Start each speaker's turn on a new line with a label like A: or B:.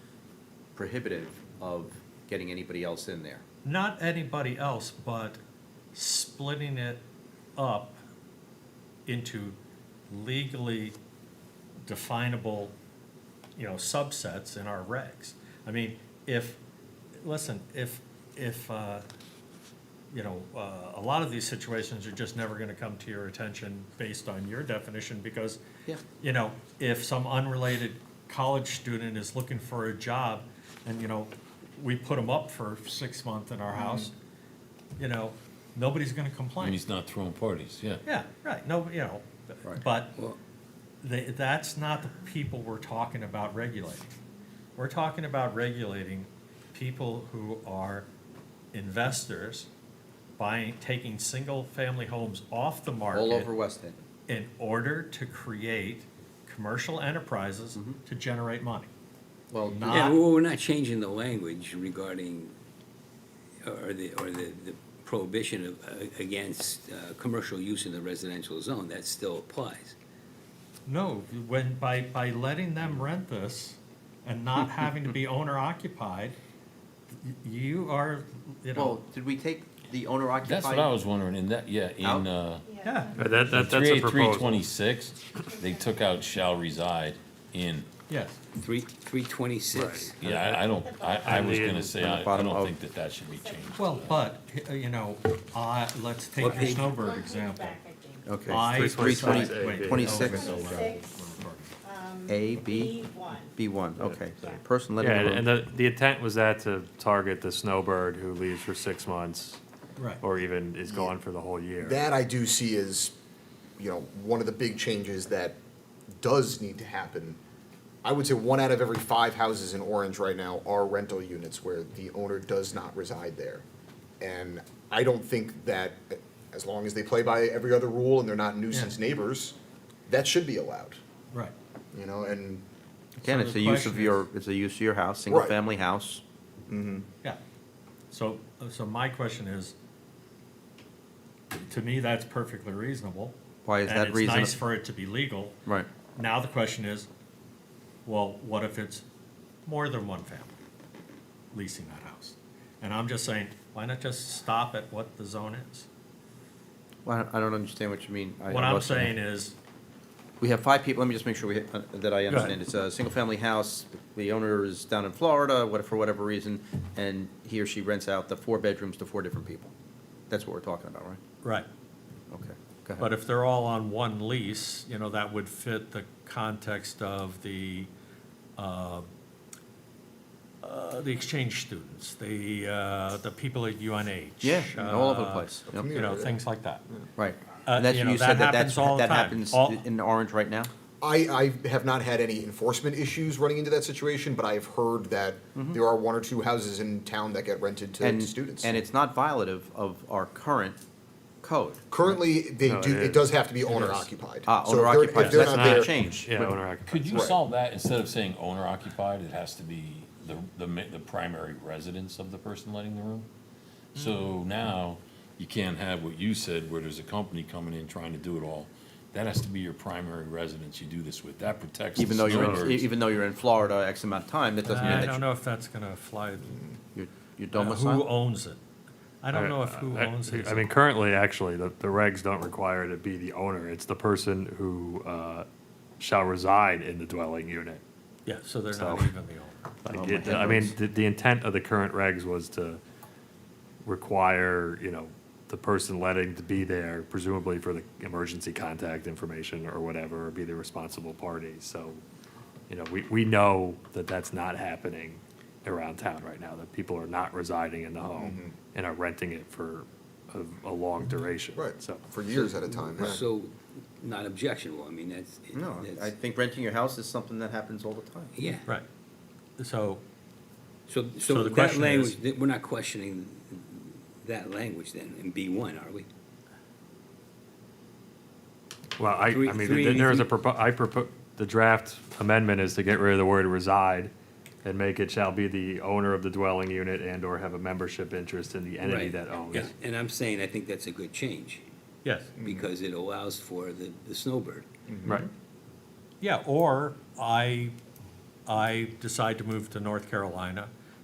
A: prohibitive of getting anybody else in there.
B: not anybody else, but splitting it up into legally definable, you know, subsets in our regs. I mean, if, listen, if, if, uh, you know, uh, a lot of these situations are just never gonna come to your attention based on your definition, because
A: Yeah.
B: you know, if some unrelated college student is looking for a job and, you know, we put them up for six months in our
A: Mm-hmm.
B: house, you know, nobody's gonna
C: And
B: complain.
C: he's not throwing parties, yeah.
B: Yeah, right, no, you know,
A: Right.
B: but
D: Well-
B: they, that's not the people we're talking about regulating. We're talking about regulating people who are investors buying, taking single-family homes off the market
A: All over West End.
B: in order to create commercial enterprises to generate money.
A: Well,
B: Not-
D: Yeah, well, we're not changing the language regarding, or the, or the the prohibition of, uh, against uh, commercial use in the residential zone, that still applies.
B: No, when, by, by letting them rent this and not having to be owner occupied, y- you are, you
A: well,
B: know,
A: did we take the owner occupied?
C: That's what I was wondering, in that, yeah,
A: Out?
C: in, uh,
B: yeah,
E: Uh, That, that, that's a
C: three, three
E: proposal.
C: twenty-six, they took out shall reside in.
B: yes.
D: Three, three twenty-six.
C: Yeah, I, I don't, I, I was gonna say, I, I
A: Bottom
C: don't
A: of-
C: think that that should be changed.
B: Well, but, uh, you know, I, let's take
D: What
B: your
D: page?
B: snowbird
F: One
B: example.
F: page back, I think.
A: Okay.
B: I
E: Three twenty
B: decide-
E: six A,
B: wait,
E: B.
B: no,
A: Twenty-six.
B: we're not-
F: Twenty-six.
B: we're recording.
F: Um,
A: A, B?
F: one.
A: B one, okay.
F: Yeah.
A: Person
E: Yeah,
A: living
E: and
A: alone.
E: and the, the intent was that to target the snowbird who leaves for six months
B: Right.
E: or even is gone for the whole year.
G: That I do see as, you know, one of the big changes that does need to happen. I would say one out of every five houses in Orange right now are rental units where the owner does not reside there. And I don't think that, as long as they play by every other rule and they're not nuisance
B: Yeah.
G: neighbors, that should be allowed,
B: Right.
G: you know, and
A: Again,
B: So
A: it's
B: the
A: a use
B: question
A: of your,
B: is-
A: it's a use of your house, single-family house.
B: Yeah. So, so my question is, to me, that's perfectly reasonable.
A: Why is that reason-
B: And it's nice for it to be legal.
A: Right.
B: Now the question is, well, what if it's more than one family leasing that house? And I'm just saying, why not just stop at what the zone is?
A: Well, I don't- I don't understand what you mean. I- I
B: What I'm
A: wasn't-
B: saying is,
A: We have five people, let me just make sure we, uh, that I understand. It's a single-family house, the owner is down in Florida, what, for whatever reason, and he or she rents out the four bedrooms to four different people. That's what we're talking about, right?
B: right,
A: Okay, go
B: But
A: ahead.
B: if they're all on one lease, you know, that would fit the context of the, uh, uh, the exchange students, the, uh, the people at UNH.
A: Yeah, all over the
B: uh,
A: place. Yep.
B: You know, things like that.
A: Right.
B: Uh,
A: And that's,
B: you
A: you
B: know, that
A: said that that's,
B: happens all the
A: that
B: time.
A: happens
B: All-
A: in Orange right now?
G: I, I have not had any enforcement issues running into that situation, but I've heard that there are one or two houses in town that get rented to
A: Mm-hmm. And,
G: students.
A: and it's not violative of our current code.
G: Currently, they
E: No,
G: do,
E: it
G: it
E: is.
G: does have to be owner occupied.
A: Ah,
G: So if
A: owner
G: they're- if
A: occupied, so
G: they're
A: that's
G: not
A: not a
G: there-
A: change.
E: Yeah,
A: but-
E: owner occupied.
C: Could you
G: Right.
C: solve that, instead of saying owner occupied, it has to be the, the, ma- the primary residence of the person letting the room? So now, you can't have what you said, where there's a company coming in trying to do it all. That has to be your primary residence you do this with, that protects. the
A: Even though you're, in- e,
C: snowbirds.
A: even though you're in Florida X amount of time, that doesn't mean
B: I
A: that
B: don't
A: you-
B: know if that's gonna fly,
A: you're, you're
B: uh, who
A: domiciled.
B: owns it? I don't know if who
E: I-
B: owns it.
E: I mean, currently, actually, the, the regs don't require it to be the owner. It's the person who, uh, shall reside in the dwelling unit.
B: Yeah, so they're not
E: So-
B: even the owner.
E: Like, it- I mean, the, the intent of the current regs was to require, you know, the person letting to be there presumably for the emergency contact information or whatever, or be the responsible party, so, you know, we, we know that that's not happening around town right now, that people are not residing in the home and are renting it for a, a long duration,
G: Right,
E: so.
G: for years at a time, yeah.
D: So, not objectionable, I mean, that's. it-
A: No, I- I
D: that's-
A: think renting your house is something that happens all the time.
D: Yeah,
B: Right. So,
D: so,
B: So
D: so
B: the
D: that
B: question
D: language,
B: is-
D: that- we're not questioning that language then, in B one, are we?
E: Well, I, I
D: Three-
E: mean,
D: three-
E: th- there is a propo, I propo, the draft amendment is to get rid of the word reside and make it shall be the owner of the dwelling unit and or have a membership interest in the entity
D: Right.
E: that owns.
D: Yeah, And I'm saying, I think that's a good change,
B: yes.
A: Mm-hmm.
D: because it allows for the, the snowbird.
E: Right,
B: Yeah, or I I decide to move to North Carolina,